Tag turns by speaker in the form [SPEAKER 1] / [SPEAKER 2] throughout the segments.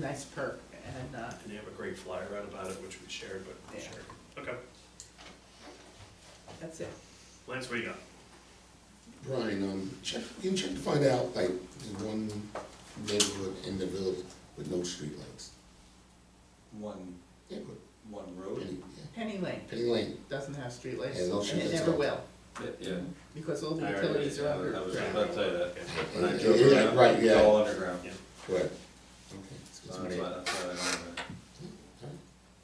[SPEAKER 1] nice perk, and, uh,
[SPEAKER 2] And they have a great flyer out about it, which we shared, but we
[SPEAKER 1] Yeah.
[SPEAKER 2] shared. Okay,
[SPEAKER 1] that's it.
[SPEAKER 2] Lance, what do you got?
[SPEAKER 3] Brian, um, check, you check to find out, like, the one neighborhood in the village with no streetlights.
[SPEAKER 4] one,
[SPEAKER 3] Yeah, but
[SPEAKER 4] one road.
[SPEAKER 3] Penny, yeah,
[SPEAKER 1] Penny Lane
[SPEAKER 3] Penny Lane,
[SPEAKER 1] doesn't have streetlights,
[SPEAKER 3] Yeah, no
[SPEAKER 1] and it
[SPEAKER 3] streetlights at
[SPEAKER 1] never
[SPEAKER 3] all.
[SPEAKER 1] will,
[SPEAKER 4] Yeah.
[SPEAKER 1] because all the
[SPEAKER 4] I
[SPEAKER 1] utilities are
[SPEAKER 4] already- I was
[SPEAKER 1] underground.
[SPEAKER 4] about to say that. When I
[SPEAKER 3] Yeah,
[SPEAKER 4] drove
[SPEAKER 3] yeah,
[SPEAKER 4] around,
[SPEAKER 3] right,
[SPEAKER 4] it's
[SPEAKER 3] yeah.
[SPEAKER 4] all underground.
[SPEAKER 2] Yeah.
[SPEAKER 3] correct. Okay.
[SPEAKER 4] So
[SPEAKER 3] excuse
[SPEAKER 4] that's
[SPEAKER 3] me.
[SPEAKER 4] why, that's why I don't, know.
[SPEAKER 3] Alright.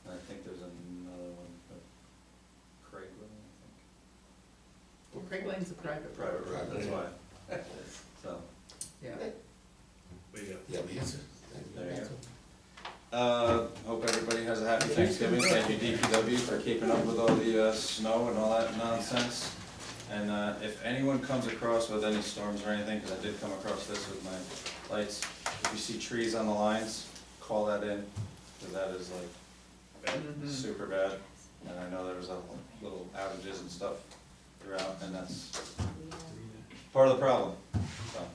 [SPEAKER 4] And I think there's another one, but Craig, I
[SPEAKER 1] Well, Craig Lane's a private
[SPEAKER 4] think.
[SPEAKER 1] road,
[SPEAKER 4] Private road, that's why. So,
[SPEAKER 1] yeah.
[SPEAKER 2] What do you got?
[SPEAKER 3] Yeah, we answered.
[SPEAKER 4] There you go. uh, hope everybody has a happy Thanksgiving. Thank you DPW for keeping up with all the, uh, snow and all that nonsense. And, uh, if anyone comes across with any storms or anything, cause I did come across this with my lights, if you see trees on the lines, call that in, cause that is like
[SPEAKER 1] Mhm.
[SPEAKER 4] super bad, and I know there was a little outages and stuff throughout, and that's part of the problem, so,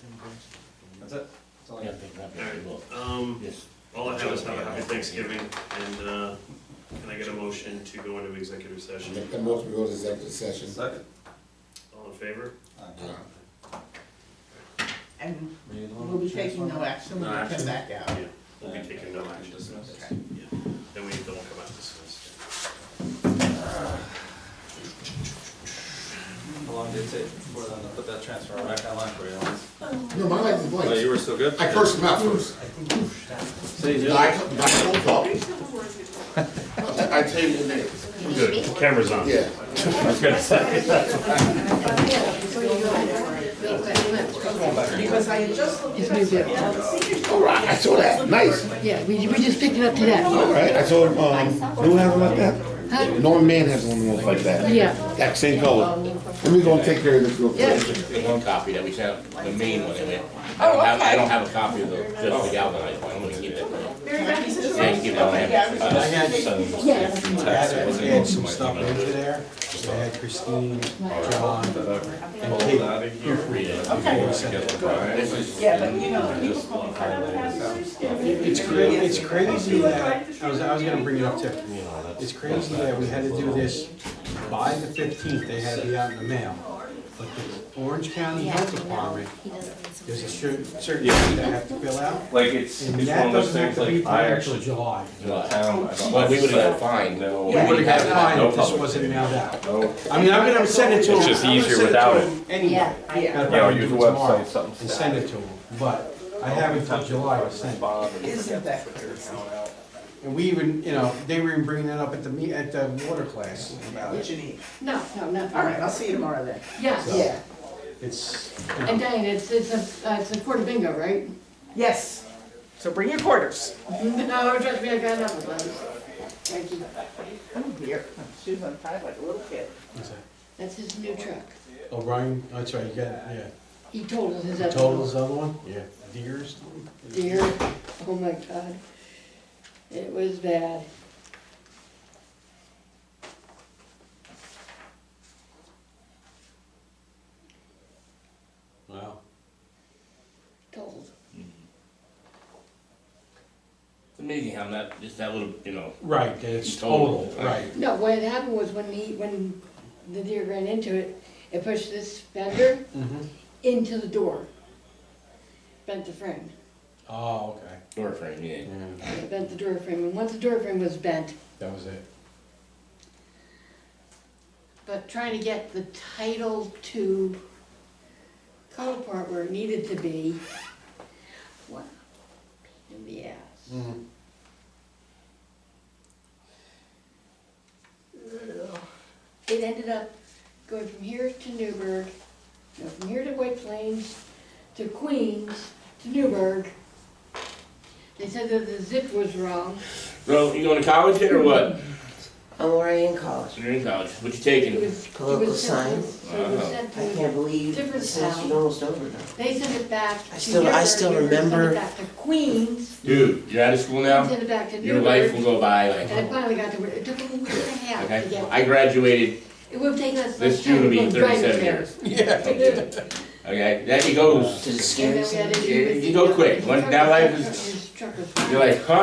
[SPEAKER 4] that's it, that's all I got.
[SPEAKER 2] Um,
[SPEAKER 5] Yes.
[SPEAKER 2] all I have is have a happy Thanksgiving, and, uh, can I get a motion to go into executive
[SPEAKER 3] I'll
[SPEAKER 2] session?
[SPEAKER 3] Make the most we go to executive session.
[SPEAKER 4] Second.
[SPEAKER 2] All in favor?
[SPEAKER 3] Uh,
[SPEAKER 1] And
[SPEAKER 4] Were you the one
[SPEAKER 1] we'll be
[SPEAKER 4] with the
[SPEAKER 1] taking no
[SPEAKER 4] transformer?
[SPEAKER 1] action when
[SPEAKER 4] No
[SPEAKER 1] we come
[SPEAKER 4] action.
[SPEAKER 1] back out.
[SPEAKER 2] Yeah, we'll be taking no
[SPEAKER 4] Uh,
[SPEAKER 2] action.
[SPEAKER 4] dismiss.
[SPEAKER 1] Okay.
[SPEAKER 2] Yeah, then we don't come out this Wednesday.
[SPEAKER 4] How long did it take before then to put that transformer back online for you? Lance?
[SPEAKER 3] No, my light is
[SPEAKER 4] Oh, you
[SPEAKER 3] blank.
[SPEAKER 4] were still good?
[SPEAKER 3] I cursed him out first.
[SPEAKER 4] See,
[SPEAKER 3] No, I, cu- no, I don't talk. I I tell you the name.
[SPEAKER 2] Good, camera's on.
[SPEAKER 3] Yeah.
[SPEAKER 1] Because I had just looked
[SPEAKER 6] It's
[SPEAKER 1] at
[SPEAKER 6] new
[SPEAKER 1] it,
[SPEAKER 6] bill.
[SPEAKER 3] All right, I saw that, nice.
[SPEAKER 6] Yeah, we, we just picked it up today.
[SPEAKER 3] All right, I saw, um, who has one like that?
[SPEAKER 6] Huh?
[SPEAKER 3] Norman Mann has one of those like that.
[SPEAKER 6] Yeah,
[SPEAKER 3] That same color. Let me go and take care of this real quick.
[SPEAKER 6] Yeah.
[SPEAKER 5] There's one copy that we sent, the main one, anyway. I don't have, I don't have a copy of the, just the galvanized one, I'm gonna keep it. Yeah, you can have it.
[SPEAKER 4] I had some
[SPEAKER 6] yes.
[SPEAKER 4] text, it wasn't
[SPEAKER 7] had
[SPEAKER 4] even so
[SPEAKER 7] some
[SPEAKER 4] much.
[SPEAKER 7] stuff
[SPEAKER 4] but-
[SPEAKER 7] over there. I had Christine, John, and
[SPEAKER 4] Hold
[SPEAKER 7] Kate.
[SPEAKER 4] that in here.
[SPEAKER 7] before I sent it.
[SPEAKER 5] This is-
[SPEAKER 1] Yeah, but you know, people
[SPEAKER 4] Just
[SPEAKER 1] call me.
[SPEAKER 4] hide it in.
[SPEAKER 7] It's crazy, it's crazy that, I was, I was gonna bring it up too. It's crazy that we had to do this by the fifteenth, they had to be out in the mail. But the Orange County Health Department, there's a certain, certain thing they have to fill out.
[SPEAKER 4] Like, it's, it's
[SPEAKER 7] And
[SPEAKER 4] one
[SPEAKER 7] that
[SPEAKER 4] of those
[SPEAKER 7] doesn't have
[SPEAKER 4] things,
[SPEAKER 7] to be
[SPEAKER 4] like, I
[SPEAKER 7] done until
[SPEAKER 4] actually,
[SPEAKER 7] July.
[SPEAKER 4] the town, I don't.
[SPEAKER 5] But we would've got fined.
[SPEAKER 4] No.
[SPEAKER 5] We
[SPEAKER 7] We would have got
[SPEAKER 5] No
[SPEAKER 7] fined if this
[SPEAKER 5] public.
[SPEAKER 7] wasn't mailed out.
[SPEAKER 4] No.
[SPEAKER 7] I mean, I'm gonna send it to them.
[SPEAKER 5] It's just
[SPEAKER 7] I'm gonna
[SPEAKER 5] easier
[SPEAKER 7] send it to
[SPEAKER 5] without it.
[SPEAKER 7] them Anyway.
[SPEAKER 6] Yeah.
[SPEAKER 1] Yeah.
[SPEAKER 7] Gotta
[SPEAKER 4] Yeah, or
[SPEAKER 7] probably
[SPEAKER 4] use
[SPEAKER 7] do
[SPEAKER 4] the
[SPEAKER 7] it tomorrow
[SPEAKER 4] website, something.
[SPEAKER 7] And send it to them, but I have until July to send it.
[SPEAKER 1] Isn't that crazy?
[SPEAKER 7] And we even, you know, they were even bringing that up at the me, at the water class about
[SPEAKER 1] What
[SPEAKER 7] it.
[SPEAKER 1] you need.
[SPEAKER 6] No, no, no.
[SPEAKER 1] All right, I'll see you tomorrow then.
[SPEAKER 6] Yes,
[SPEAKER 1] Yeah,
[SPEAKER 7] It's,
[SPEAKER 6] and Diane, it's, it's a, uh, it's a quarter bingo, right?
[SPEAKER 1] yes. So bring your quarters.
[SPEAKER 6] No, trust me, I got enough of those. Thank you.
[SPEAKER 1] I'm here. She was untied like a little kid.
[SPEAKER 7] it's
[SPEAKER 6] That's his new truck.
[SPEAKER 7] a- O'Brien, oh, sorry, you got, yeah,
[SPEAKER 6] He told us his.
[SPEAKER 7] Total's the other one, yeah, Deers.
[SPEAKER 6] Dear, oh my God. It was bad.
[SPEAKER 7] Wow,
[SPEAKER 6] Told.
[SPEAKER 5] It's amazing how that, just that little, you know,
[SPEAKER 7] right, it's
[SPEAKER 5] Total.
[SPEAKER 7] total, right,
[SPEAKER 6] No, what had happened was when he, when the deer ran into it, it pushed this fender
[SPEAKER 7] Mhm.
[SPEAKER 6] into the door. Bent the frame.
[SPEAKER 7] oh, okay,
[SPEAKER 5] door frame, yeah.
[SPEAKER 7] yeah,
[SPEAKER 6] It bent the door frame, and once the door frame was bent,
[SPEAKER 7] that was it.
[SPEAKER 6] but trying to get the title to cut apart where it needed to be, wow, pain in the ass. Ugh. It ended up going from here to Newburgh, no, from here to White Plains, to Queens, to Newburgh. They said that the zip was wrong,
[SPEAKER 5] So, you going to college yet, or what?
[SPEAKER 8] I'm already in college.
[SPEAKER 5] So you're in college, what you
[SPEAKER 6] it
[SPEAKER 5] taking?
[SPEAKER 6] was, it
[SPEAKER 8] Political
[SPEAKER 6] was sent,
[SPEAKER 8] science.
[SPEAKER 6] to- it was
[SPEAKER 5] Uh-huh.
[SPEAKER 6] sent
[SPEAKER 8] I
[SPEAKER 6] to,
[SPEAKER 8] can't believe
[SPEAKER 6] Different
[SPEAKER 8] the session's
[SPEAKER 6] town.
[SPEAKER 8] almost over now.
[SPEAKER 6] they sent it back
[SPEAKER 8] I
[SPEAKER 6] to
[SPEAKER 8] still- I
[SPEAKER 6] Newburgh,
[SPEAKER 8] still
[SPEAKER 6] Newburgh sent it
[SPEAKER 8] remember-
[SPEAKER 6] back to Queens,
[SPEAKER 5] Dude, you're out of school now?
[SPEAKER 6] sent it back to
[SPEAKER 5] Your life will
[SPEAKER 6] Newburgh,
[SPEAKER 5] go by
[SPEAKER 6] and
[SPEAKER 5] like,
[SPEAKER 6] it finally got to, where- it took a year and a half to
[SPEAKER 5] okay?
[SPEAKER 6] get,
[SPEAKER 5] I graduated
[SPEAKER 6] it would have taken us.
[SPEAKER 5] this
[SPEAKER 6] some time
[SPEAKER 5] June will
[SPEAKER 6] to
[SPEAKER 5] be
[SPEAKER 6] go drive
[SPEAKER 5] thirty-seven
[SPEAKER 6] there.
[SPEAKER 5] years. Yeah. Okay, that he goes,
[SPEAKER 8] Does it scare
[SPEAKER 6] And
[SPEAKER 8] you?
[SPEAKER 6] then we had to
[SPEAKER 5] Yeah,
[SPEAKER 6] do with
[SPEAKER 5] you go
[SPEAKER 6] the-
[SPEAKER 5] quick. One- now life is-
[SPEAKER 6] Truckers- truckers.
[SPEAKER 5] you're like, huh?